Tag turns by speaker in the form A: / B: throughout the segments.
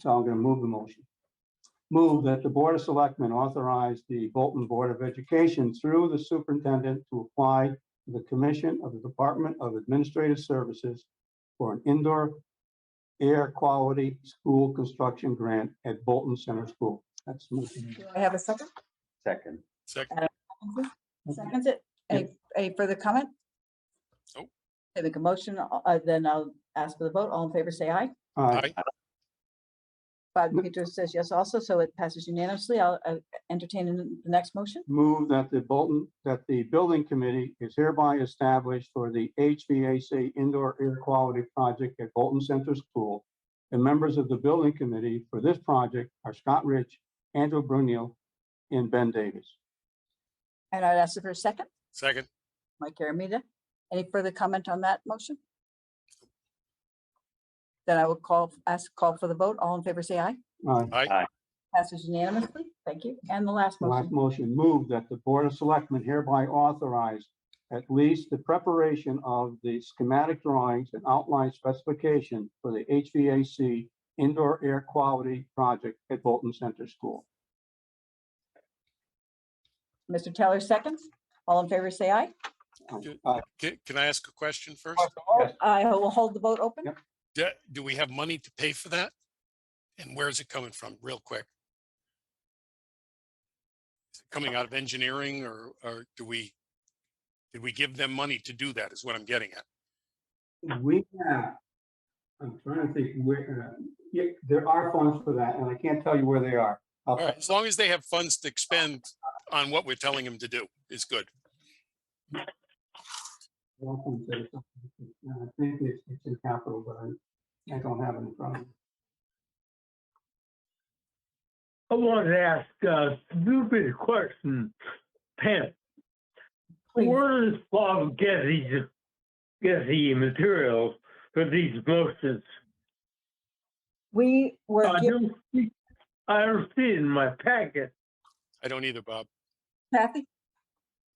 A: So I'm going to move the motion. Move that the Board of Selectmen authorize the Bolton Board of Education through the superintendent to apply to the Commission of the Department of Administrative Services for an indoor air quality school construction grant at Bolton Center School. That's the motion.
B: Do I have a second? Uh,
C: Second.
D: Second,
B: Seconds it? Any, any further comment?
D: Nope.
B: I make a motion, uh, then I'll ask for the vote. All in favor, say aye.
A: Aye.
D: aye,
B: Bob
A: Yep.
B: Peters says yes also, so it passes unanimously. I'll uh, entertain the next motion.
A: Move that the Bolton, that the Building Committee is hereby established for the HVAC Indoor Air Quality Project at Bolton Center School. And members of the Building Committee for this project are Scott Rich, Andrew Brunel, and Ben Davis.
B: And I'd ask for a second,
D: second,
B: Mike Aramita. Any further comment on that motion? Then I will call, ask, call for the vote. All in favor, say aye.
A: Aye.
B: Passes unanimously. Thank you. And the last
A: Last
B: motion.
A: motion, move that the Board of Selectmen hereby authorize at least the preparation of the schematic drawings and outline specification for the HVAC indoor air quality project at Bolton Center School.
B: Mr. Taylor seconds. All in favor, say aye.
D: Good.
A: Uh,
D: can, can I ask a question first?
A: Yes.
B: I will hold the vote open.
A: Yep.
D: Do, do we have money to pay for that? And where is it coming from, real quick? Is it Coming out of engineering or, or do we, did we give them money to do that is what I'm getting at.
A: We have, I'm trying to think where, uh, yeah, there are funds for that, and I can't tell you where they are. I'll-
D: All right, as long as they have funds to expend on what we're telling them to do is good.
A: I don't think so. I think it's, it's in capital, but I, I don't have it in front of me.
E: I want to ask a stupid question, Pam.
B: Please.
E: Where does Bob get these, get the materials for these motions?
B: We were,
E: I
B: giv-
E: don't see, I don't see it in my packet.
D: I don't either, Bob.
B: Kathy?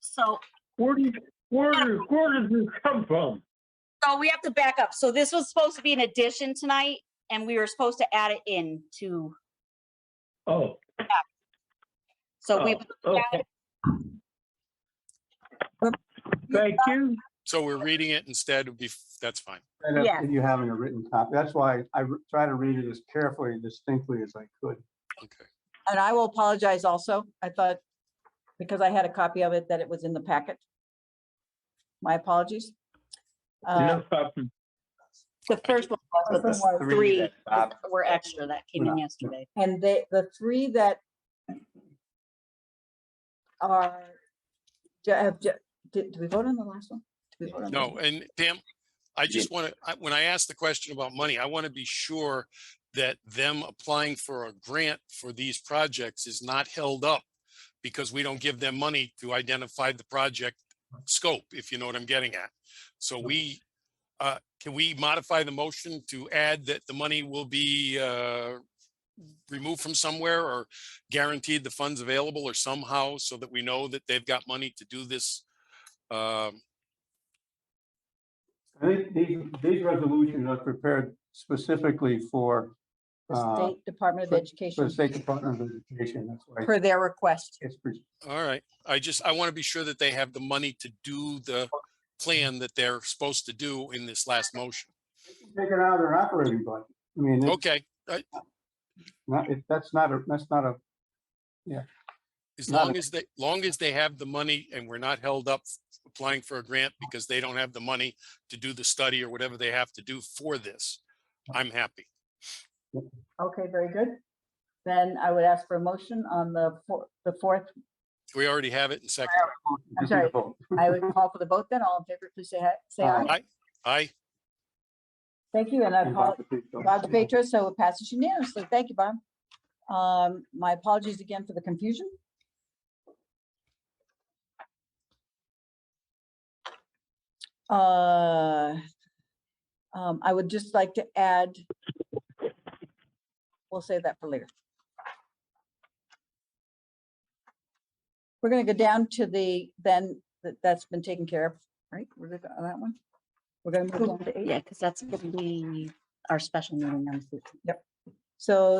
F: So,
E: Where do, you- where, where does this come from?
F: so we have to back up. So this was supposed to be an addition tonight and we were supposed to add it in to,
E: Oh,
F: so we,
E: oh, okay. Thank you.
D: So we're reading it instead of, bef- that's fine.
A: And that's
F: Yeah.
A: if you having a written copy. That's why I re- try to read it as carefully and distinctly as I could.
D: Okay.
B: and I will apologize also. I thought, because I had a copy of it, that it was in the packet. My apologies. Uh,
E: No problem.
F: the first one was, but
C: That's
F: there were
C: three
F: three
C: that Bob-
F: that were extra that came in
A: Yeah.
F: yesterday.
B: And they, the three that are, ju- have, ju- did, did we vote on the last one? Did we vote on the-
D: No, and Pam, I just want to, when I asked the question about money, I want to be sure that them applying for a grant for these projects is not held up because we don't give them money to identify the project scope, if you know what I'm getting at. So we, uh, can we modify the motion to add that the money will be, uh, removed from somewhere or guaranteed the funds available or somehow so that we know that they've got money to do this, um,
A: I think these, these resolutions are prepared specifically for,
B: The
A: uh,
B: State Department of
A: for- for
B: Education,
A: the State Department of Education. That's why
B: per their request.
A: it's, pre-
D: All right, I just, I want to be sure that they have the money to do the plan that they're supposed to do in this last motion.
A: take it out of their operating budget. I mean, it's
D: Okay,
A: not, it, that's not a, that's not a,
D: as
A: Not a-
D: long as they, long as they have the money and we're not held up applying for a grant because they don't have the money to do the study or whatever they have to do for this, I'm happy.
B: Okay, very good. Then I would ask for a motion on the, four- the fourth.
D: We already have it in second.
A: just need
B: sorry.
A: a vote.
B: I would call for the vote then. All in favor, please say, hi- say
A: Aye.
B: aye.
D: I, I,
B: Thank you, and I
A: And Bob
B: apologize.
A: DePietro.
B: Bob DePietro, so it passes unanimously. Thank you, Bob. Um, my apologies again for the confusion. Uh, um, I would just like to add, we'll save that for later. We're gonna go down to the, then, that- that's been taken care of, right? We're good on that one? We're gonna move down to eight.
F: Yeah, because that's gonna be our special meeting on the 15th.
B: So